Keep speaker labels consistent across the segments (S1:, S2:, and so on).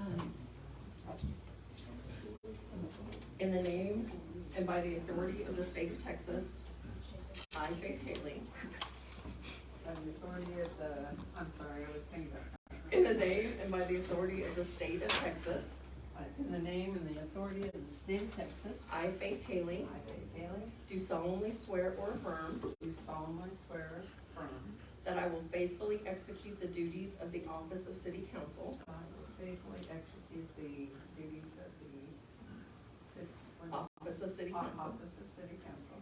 S1: Um, in the name and by the authority of the state of Texas, I, Faith Haley,
S2: by the authority of the, I'm sorry, I was thinking about
S1: in the name and by the authority of the state of Texas,
S2: something. In the name and the authority of the state of Texas,
S1: I, Faith Haley,
S2: I, Faith Bailey,
S1: do solemnly swear or affirm
S2: do solemnly swear affirm
S1: that I will faithfully execute the duties of the office of city council
S2: that I will faithfully execute the duties of the city, what-
S1: Office of City Council
S2: office of city council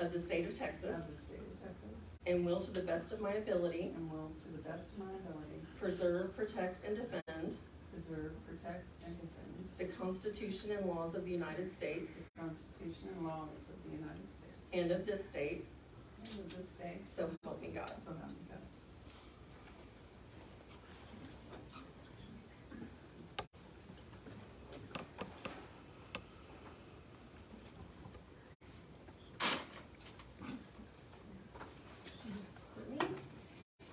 S1: of the State of Texas
S2: of the state of Texas,
S1: and will to the best of my ability
S2: and will to the best of my ability
S1: preserve, protect, and defend
S2: preserve, protect, and defend
S1: the Constitution and laws of the United States
S2: the Constitution and laws of the United States
S1: and of this state,
S2: and of this state,
S1: so help me God.
S2: so help me God.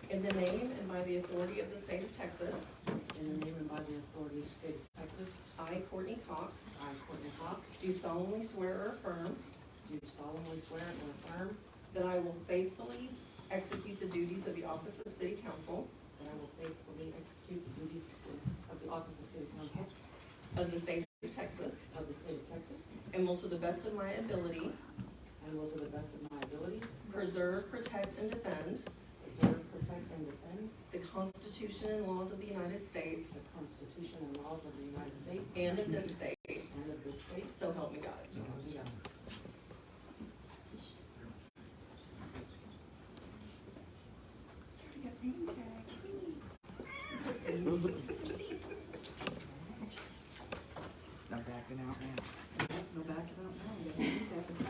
S1: In the name and by the authority of the State of Texas,
S2: In the name and by the authority of the state of Texas,
S1: I, Courtney Cox,
S2: I, Courtney Cox,
S1: do solemnly swear or affirm
S2: do solemnly swear and affirm
S1: that I will faithfully execute the duties of the Office of City Council
S2: that I will faithfully execute the duties of city- of the office of city council
S1: of the State of Texas
S2: of the state of Texas,
S1: and will to the best of my ability
S2: and will to the best of my ability
S1: preserve, protect, and defend
S2: preserve, protect, and defend
S1: the Constitution and laws of the United States
S2: the Constitution and laws of the United States
S1: and of this state,
S2: and of this state,
S1: so help me God.
S2: so help me God.
S3: No backing out now.
S4: No back it up now, we got a new tab in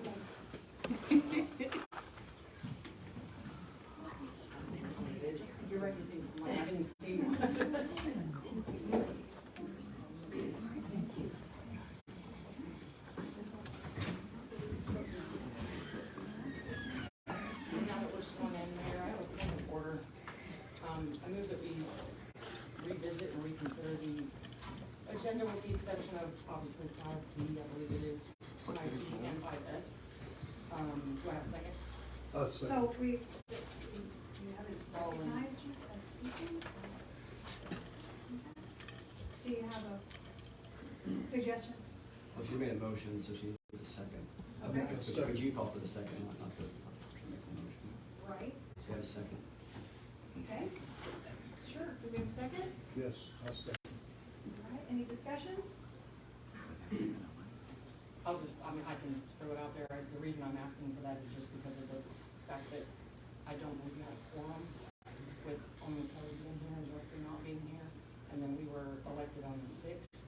S4: back.
S2: You're right, Steve. I didn't see you. So now that we're sworn in, Mayor, I have a point of order. Um, I move that we revisit and reconsider the um, agenda with the exception of obviously five B, I believe it is, five B and five F. Um, do I have a second?
S5: Oh, so,
S4: So we, you haven't recognized you as speaking? so- Do you have a suggestion?
S6: Well, she made a motion, so she needs a second.
S4: Okay.
S6: But you- But you call for the second, not, not the, not to make the motion.
S4: Right,
S6: So you have a second.
S4: okay. Sure, do we have a second? All
S5: yes, I'll second.
S4: right, any discussion?
S2: I'll just, I mean, I can throw it out there, I- the reason I'm asking for that is just because of the fact that I don't know if you had a quorum with only Kelly being here and Justin not being here, and then we were elected on the sixth,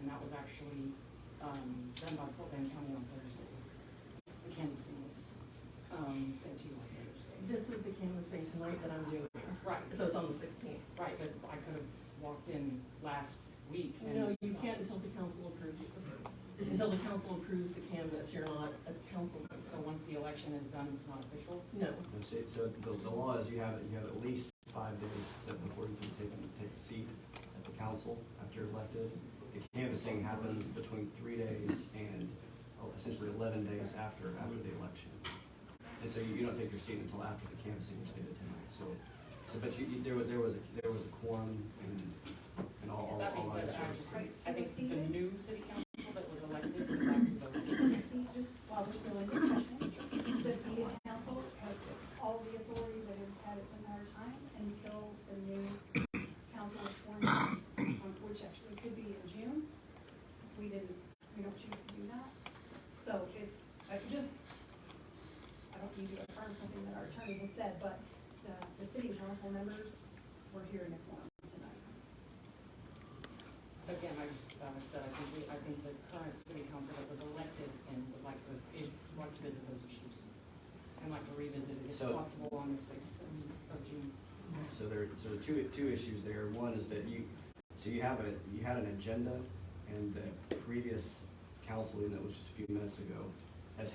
S2: and that was actually, um, done by Portland County on Thursday. The canvassing was, um, sent to you on Thursday.
S1: This is the canvassing tonight that I'm doing,
S2: Right,
S1: so it's on the sixteenth.
S2: right, but I could have walked in last week and.
S1: No, you can't until the council approves you. Until the council approves the canvas, you're not a council. member.
S2: So once the election is done, it's not official?
S1: No,
S6: And so, so the, the law is you have, you have at least five days to, before you can take, take a seat at the council after you're elected. The canvassing happens between three days and oh, essentially eleven days after, after the election. And so you, you don't take your seat until after the canvassing, which they did tonight, so, so, but you, you, there was, there was, a- there was a quorum and, and all, all.
S2: That being
S6: all
S2: said,
S6: eyes
S2: I
S6: were-
S2: just,
S4: Right, so
S2: I
S4: we
S2: think
S4: see
S2: the
S4: it?
S2: new city council that was elected would like to vote.
S4: The C, just while we're still in discussion, the city council has all the authority that it's had its entire time until the new council is sworn in, um, which actually could be in June. We didn't, we don't choose to do that. So it's, I just, I don't need to affirm something that our attorney has said, but the, the city council members were here in a forum tonight.
S2: Again, I just, uh, said, I think, we- I think the current city council that was elected and would like to, is, like to visit those issues. And like to revisit it if
S6: So-
S2: possible on the sixth of June.
S6: So there, so there are two, two issues there. One is that you, so you have a, you had an agenda and the previous council meeting that was just a few minutes ago